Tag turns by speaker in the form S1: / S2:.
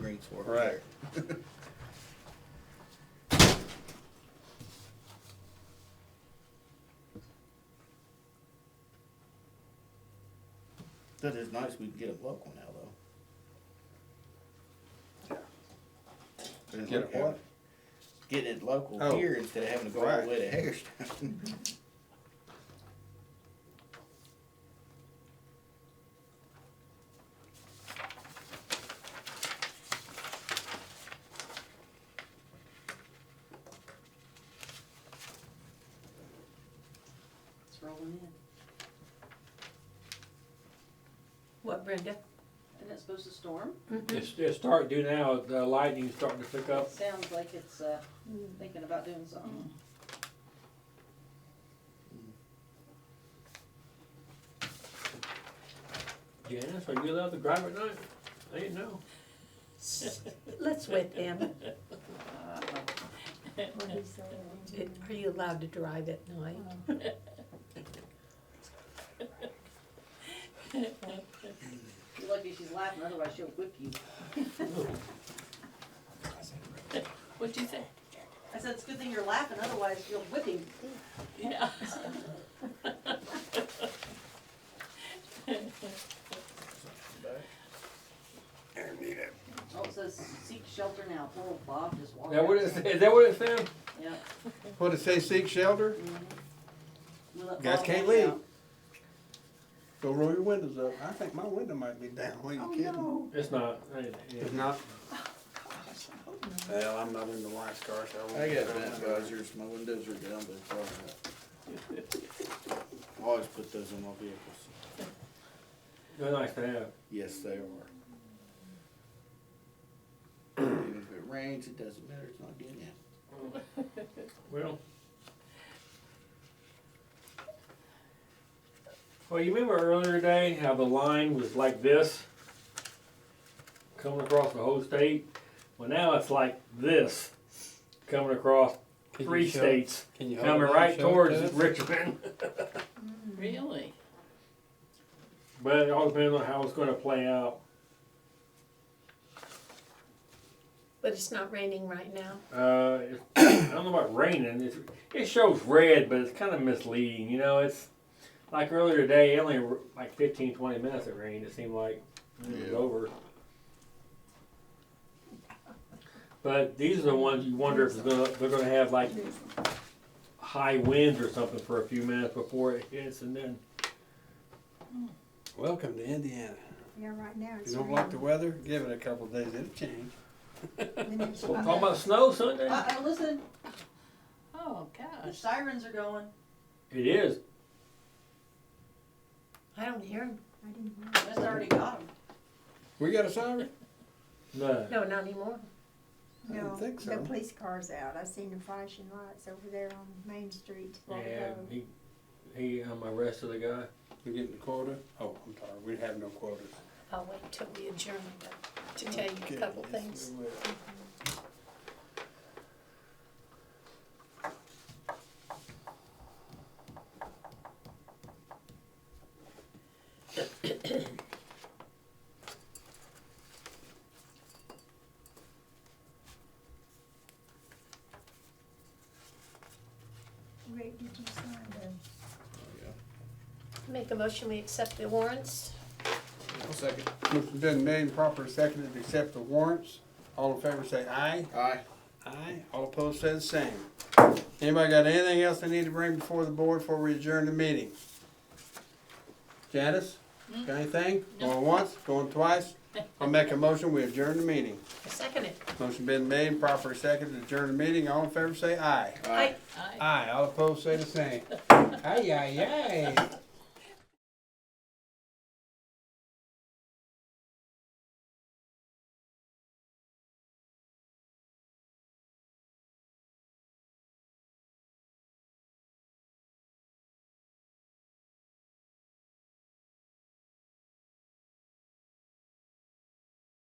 S1: needs for.
S2: Correct.
S1: That is nice, we can get a local now, though. We didn't
S2: Get
S1: look
S2: it what?
S1: at it. Getting it local
S2: Oh.
S1: here instead of having to go all the
S2: Right.
S1: way to Hagerstown.
S3: It's rolling in.
S4: What, Brenda?
S3: Isn't it supposed to storm?
S5: Mm-hmm.
S6: It's, it's starting to now, the lightning's starting to pick up.
S3: It sounds like it's, uh, thinking about doing something.
S6: Janice, are you allowed to drive at night? I didn't know.
S4: Let's wait them.
S5: Mm-hmm.
S3: Uh,
S5: What is that?
S4: Are you allowed to drive at night?
S5: Oh.
S3: You're lucky she's laughing, otherwise she'll whip you.
S5: What'd you say?
S3: I said, it's a good thing you're laughing, otherwise you'll whip him.
S5: Yeah.
S3: Oh, it says seek shelter now. Poor old Bob just walked.
S6: That what
S3: out.
S6: it, is that what it said?
S3: Yeah.
S2: What'd it say, seek shelter?
S3: We let
S2: Guys
S3: Bob
S2: can't
S3: walk
S2: leave.
S3: out.
S2: Go roll your windows up. I think my window might be down, are you
S3: Oh,
S2: kidding?
S3: no.
S6: It's not. I didn't-
S2: If
S6: yeah.
S2: not. Well, I'm not in the wife's car, so I
S1: I
S2: won't.
S1: got Vanwazers, my windows are down, but it's all right. I Always put those in my vehicles.
S6: They're nice to have.
S1: Yes, they are. Even if it rains, it doesn't matter, it's not getting in.
S6: Well. Well, you remember earlier today how the line was like this? Coming across the whole state? Well, now it's like this, coming across
S7: you
S6: three
S7: show-
S6: states,
S7: Can you
S6: coming right towards Richmond.
S5: Really?
S6: But it all depends on how it's gonna play out.
S4: But it's not raining right now.
S6: Uh, it, I don't know about raining. It's, it shows red, but it's kind of misleading. You know, it's like earlier today, it only r- like 15, 20 minutes it rained. It seemed like it was
S1: Yeah.
S6: over. But these are the ones you wonder if it's gonna, they're going to have like high winds or something for a few minutes before it hits, and then
S2: Welcome to Indiana.
S8: Yeah, right now
S2: If
S8: it's.
S2: you don't like the weather, give it a couple of days, it'll change.
S6: we'll talk about snow Sunday.
S3: Uh-oh, Uh, listen,
S5: Oh,
S3: the
S5: gosh.
S3: sirens are going.
S6: It is.
S4: I don't hear them.
S3: Just already got them.
S2: We got a siren?
S6: No.
S4: No, not anymore.
S2: I didn't
S8: No,
S2: think
S8: the
S2: so.
S8: police car's out. I seen the flashing lights over there on Main Street.
S6: Yeah, he he um, arrested the guy.
S2: We getting the quota? Oh, I'm sorry, we have no quotas.
S4: I'll wait till we adjourn to tell you a couple
S2: Goodness,
S4: things.
S2: we will.
S8: Rick, did you sign the,
S4: Make a motion, we accept the warrants.
S1: Second.
S2: Motion been made and properly seconded to accept the warrants. All in favor say aye.
S1: Aye.
S2: Aye. All opposed say the same. Anybody got anything else they need to bring before the board before we adjourn the meeting? Janice, got anything? Going once, going twice? I'll make a motion, we adjourn the meeting.
S4: Second it.
S2: Motion been made and properly seconded to adjourn the meeting. All in favor say aye.
S4: Aye.
S5: I
S2: Aye. All opposed say the same. Aye, aye, aye.